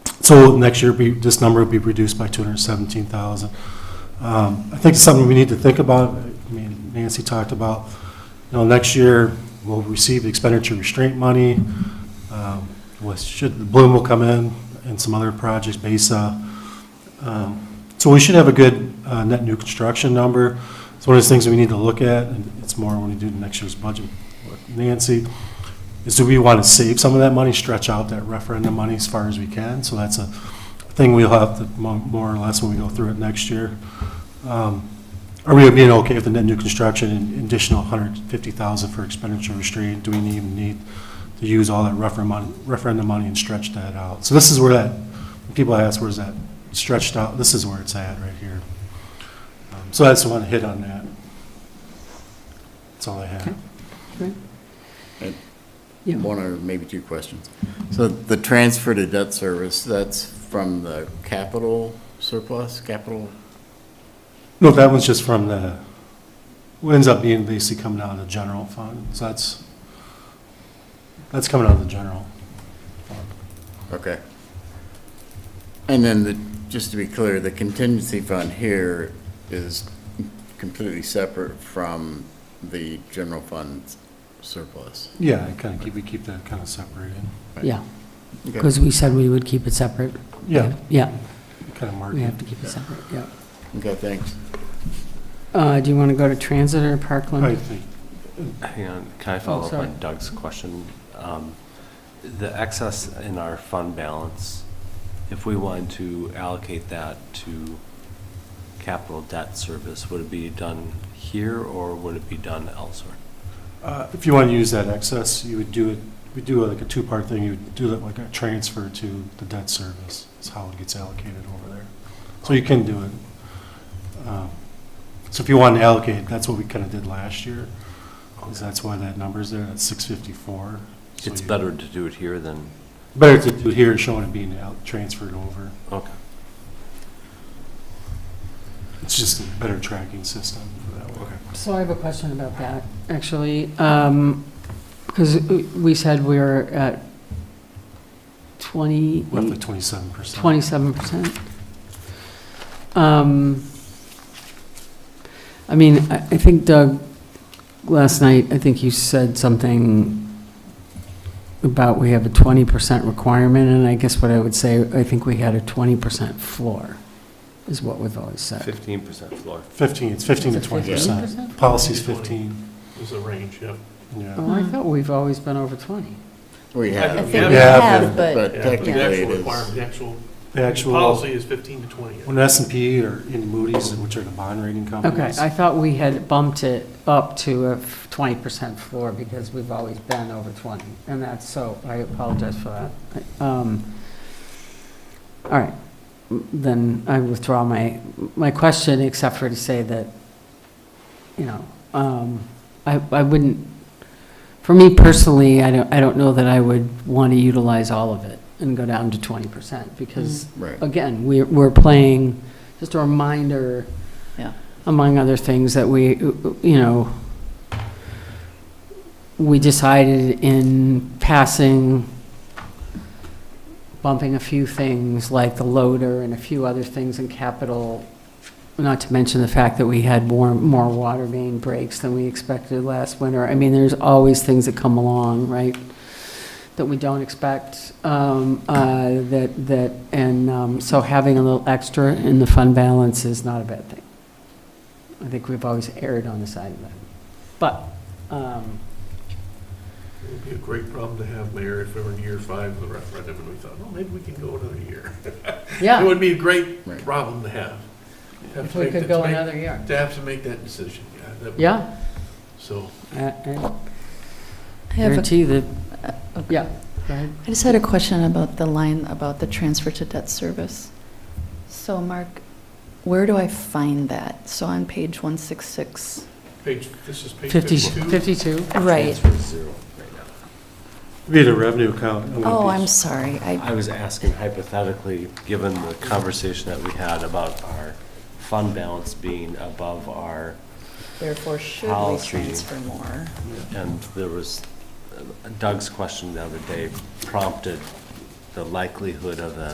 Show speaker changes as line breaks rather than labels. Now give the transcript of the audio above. So next year, be- this number will be reduced by 217,000. Um, I think it's something we need to think about. I mean, Nancy talked about, you know, next year, we'll receive the expenditure restraint money, um, which should, Bloom will come in, and some other projects, BASA. Um, So we should have a good uh, net new construction number. It's one of those things we need to look at, and it's more when we do next year's budget. Nancy, is do we want to save some of that money, stretch out that referendum money as far as we can? So that's a thing we'll have to, mo- more or less, when we go through it next year. Um, Are we being okay with the net new construction and additional 150,000 for expenditure restraint? Do we even need to use all that referendum, mon- referendum money and stretch that out? So this is where that, people ask, where's that stretched out? This is where it's at, right here. Um, So I just want to hit on that. That's all I have.
Right.
And
Yeah.
One or maybe two questions. So the transfer to debt service, that's from the capital surplus, capital?
No, that one's just from the, what ends up being basically coming out of the general fund, so that's, that's coming out of the general.
Okay. And then the, just to be clear, the contingency fund here is completely separate from the general fund surplus.
Yeah, I kind of keep, we keep that kind of separated.
Yeah,
Okay.
because we said we would keep it separate.
Yeah,
Yeah,
kind of marked.
we have to keep it separate, yeah.
Okay, thanks.
Uh, Do you want to go to transit or Parkland?
I think,
Hang on, can I follow up
sorry.
on Doug's question? Um, The excess in our fund balance, if we wanted to allocate that to capital debt service, would it be done here or would it be done elsewhere?
uh, if you want to use that excess, you would do it, we do like a two-part thing, you would do that like a transfer to the debt service, is how it gets allocated over there. So you can do it. Um, So if you want to allocate, that's what we kind of did last year, is that's why that number's there, that's six fifty-four.
It's better to do it here than,
Better to do here, showing it being out, transferred over.
okay.
It's just a better tracking system for that one.
So I have a question about that, actually, because we said we were at 20,
Roughly twenty-seven percent.
27%. Um, I mean, I I think Doug, last night, I think you said something about we have a 20% requirement, and I guess what I would say, I think we had a 20% floor, is what we've always said.
Fifteen percent floor.
Fifteen, it's fifteen to
Is it
twenty percent.
15%?
Policy's fifteen,
There's a range, yeah.
yeah.
Oh, I thought we've always been over 20.
We have.
I think we
Yeah,
have,
But
but
Yeah,
technically
but the
it
actual
is.
requirement, the actual,
The
the policy
actual,
is 15 to 20.
when S and P or in Moody's, which are the bond rating
Okay,
companies.
I thought we had bumped it up to a 20% floor because we've always been over 20, and that's, so I apologize for that. Um, All right, then I withdraw my, my question, except for to say that, you know, um, I, I wouldn't, for me personally, I don't, I don't know that I would want to utilize all of it and go down to 20% because,
Right.
again, we're, we're playing, just a reminder,
yeah.
among other things that we, you know, we decided in passing, bumping a few things like the loader and a few other things in capital, not to mention the fact that we had more, more water main breaks than we expected last winter. I mean, there's always things that come along, right? that we don't expect, um, uh, that, that, and um, so having a little extra in the fund balance is not a bad thing. I think we've always erred on the side of that. But, um,
It would be a great problem to have, Mayor, if we were in year five of the referendum and we thought, well, maybe we can go another year. It
yeah,
would be a great
Right.
problem to have. To have
if
to
we
make
could
that-
go
to make-
another year.
To have to make that decision, yeah. that would-
Yeah,
So,
I- I
I have, a-
guarantee that,
okay.
yeah, go ahead.
I just had a question about the line about the transfer to debt service. So, Mark, where do I find that? So on page 166.
page, this is page
50
52.
52,
Transfer zero right now.
Be the revenue account. it would
Oh,
be-
I'm sorry. I,
I was asking hypothetically, given the conversation that we had about our fund balance being above our
therefore, should we
Policy.
transfer more?
And there was, uh, Doug's question the other day prompted the likelihood of a